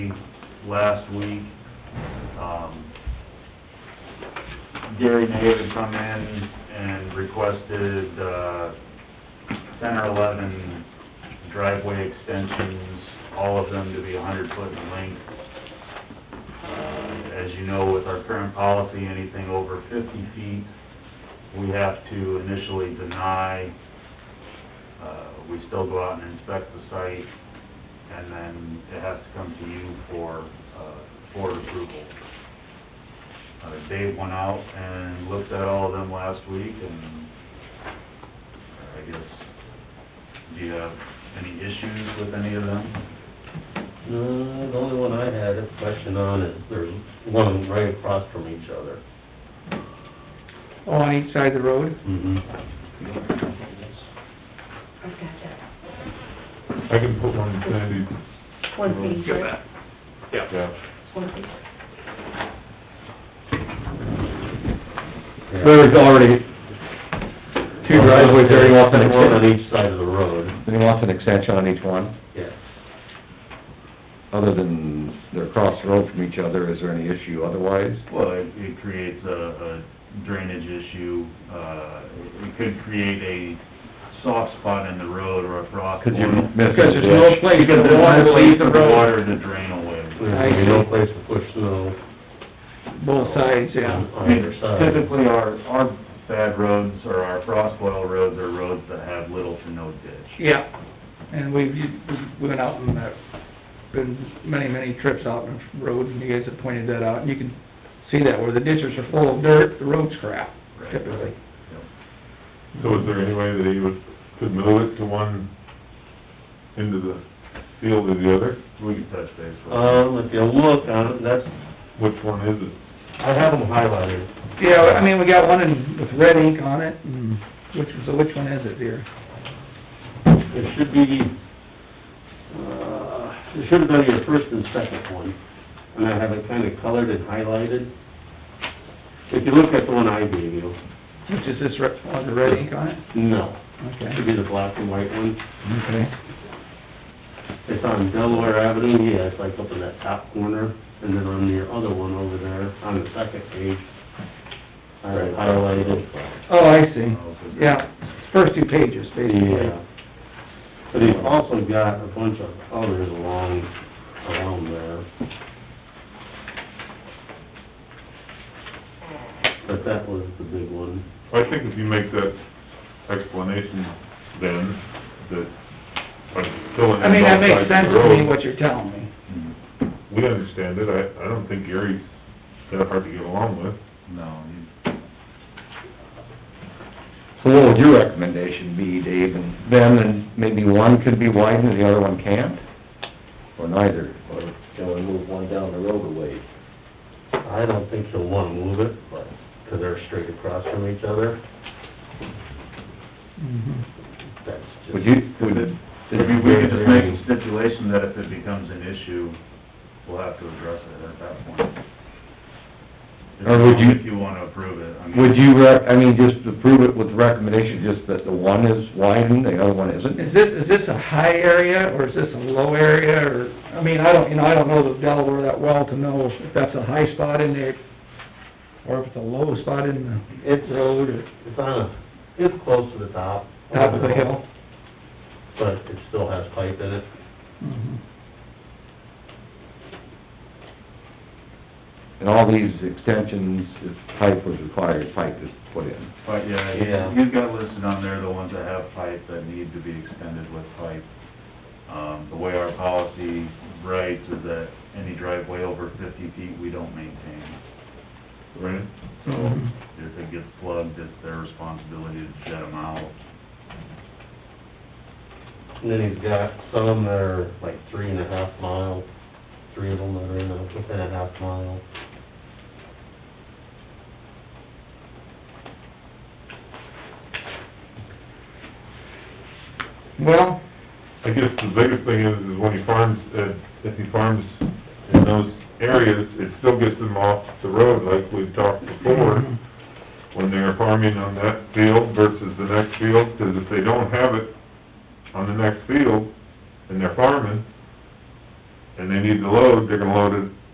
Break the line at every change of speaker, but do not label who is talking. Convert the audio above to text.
last week.
Uh,
Um, Gary Nave had come in and requested, uh, ten or eleven driveway extensions, all of them to be hundred foot in length. Uh, As you know, with our current policy, anything over fifty feet, we have to initially deny. Uh, We still go out and inspect the site, and then it has to come to you for, uh, board approval. Uh, Dave went out and looked at all of them last week, and I guess, do you have any issues with any of them?
No, the only one I had a question on is there's one right across from each other.
Oh, on each side of the road?
Mm-hmm.
I've got that.
I can put one in Sandy's,
One thing,
Get
right?
yeah.
One thing.
There's already two driveways there, he wants an
One on
extension,
each side of the road,
he wants an extension on each one,
yeah.
other than they're across the road from each other, is there any issue otherwise?
Well, it, it creates a a drainage issue, uh, it could create a soft spot in the road or a frost.
Because you
boil.
miss
Because there's no
the ditch.
place for
Because
the water to leave the
there's no place for
road,
Water to drain away.
There's gonna be no place to push snow
both sides, yeah.
on either side.
Typically, our, our bad roads or our frost boil roads are roads that have little to no ditch.
Yeah, and we've, we went out and, uh, been many, many trips out on roads, and you guys have pointed that out, and you can see that where the ditches are full of dirt, the road's crap,
Right.
typically.
Yep.
So is there any way that he would, could move it to one, into the field or the other?
We can touch base with.
Um, if you look on, it, that's,
Which one is it?
I have them highlighted.
Yeah, I mean, we got one in, with red ink on it, and which, so which one is it here?
It should be, uh, it should have been your first and second one, and I have it kind of colored and highlighted. If you look at the one I gave you,
Which is this red, one with the red ink on it?
no, it should
Okay,
be the black and white one.
okay.
It's on Delaware Avenue, yeah, it's like up in that top corner, and then on your other one over there, on the second page, I have highlighted.
Oh, I see, yeah, first two pages, basically.
Yeah. But he's also got a bunch of others along, along there. But that was the big one.
I think if you make that explanation then, that, like, filling in both sides of the road.
I mean, that makes sense to me, what you're telling me.
Mhm.
We understand it, I, I don't think Gary's that hard to get along with.
No, you-
So what would your recommendation be, Dave, and then, and maybe one could be widened and the other one can't? Or neither?
Or shall we move one down the road a ways?
I don't think he'll wanna move it, but, 'cause they're straight across from each other,
Mhm.
that's just.
Would you,
If
would,
it- if you- we could just make a stipulation that if it becomes an issue, we'll have to address it at that point.
Or would you-
If you wanna approve it, I mean.
would you rec, I mean, just to prove it with the recommendation, just that the one is widened, the other one isn't?
Is this, is this a high area, or is this a low area, or, I mean, I don't, you know, I don't know the Delaware that well to know if that's a high spot in there, or if it's a low spot in
It's,
the road, or
it's on a, it's close to the top.
top of the hill.
But it still has pipe in it.
Mhm.
And all these extensions, if pipe was required, pipe is put in.
But, yeah,
Yeah.
you've got listed on there the ones that have pipe that need to be extended with pipe. Um, the way our policy writes is that any driveway over fifty feet, we don't maintain.
Right.
So if it gets plugged, it's their responsibility to jet them out.
And then he's got some that are like three and a half mile, three of them that are in a, within a half mile.
Well,
I guess the biggest thing is, is when he farms, uh, if he farms in those areas, it still gets them off the road, like we've talked before, when they're farming on that field versus the next field, 'cause if they don't have it on the next field, and they're farming, and they need to load, they're gonna load it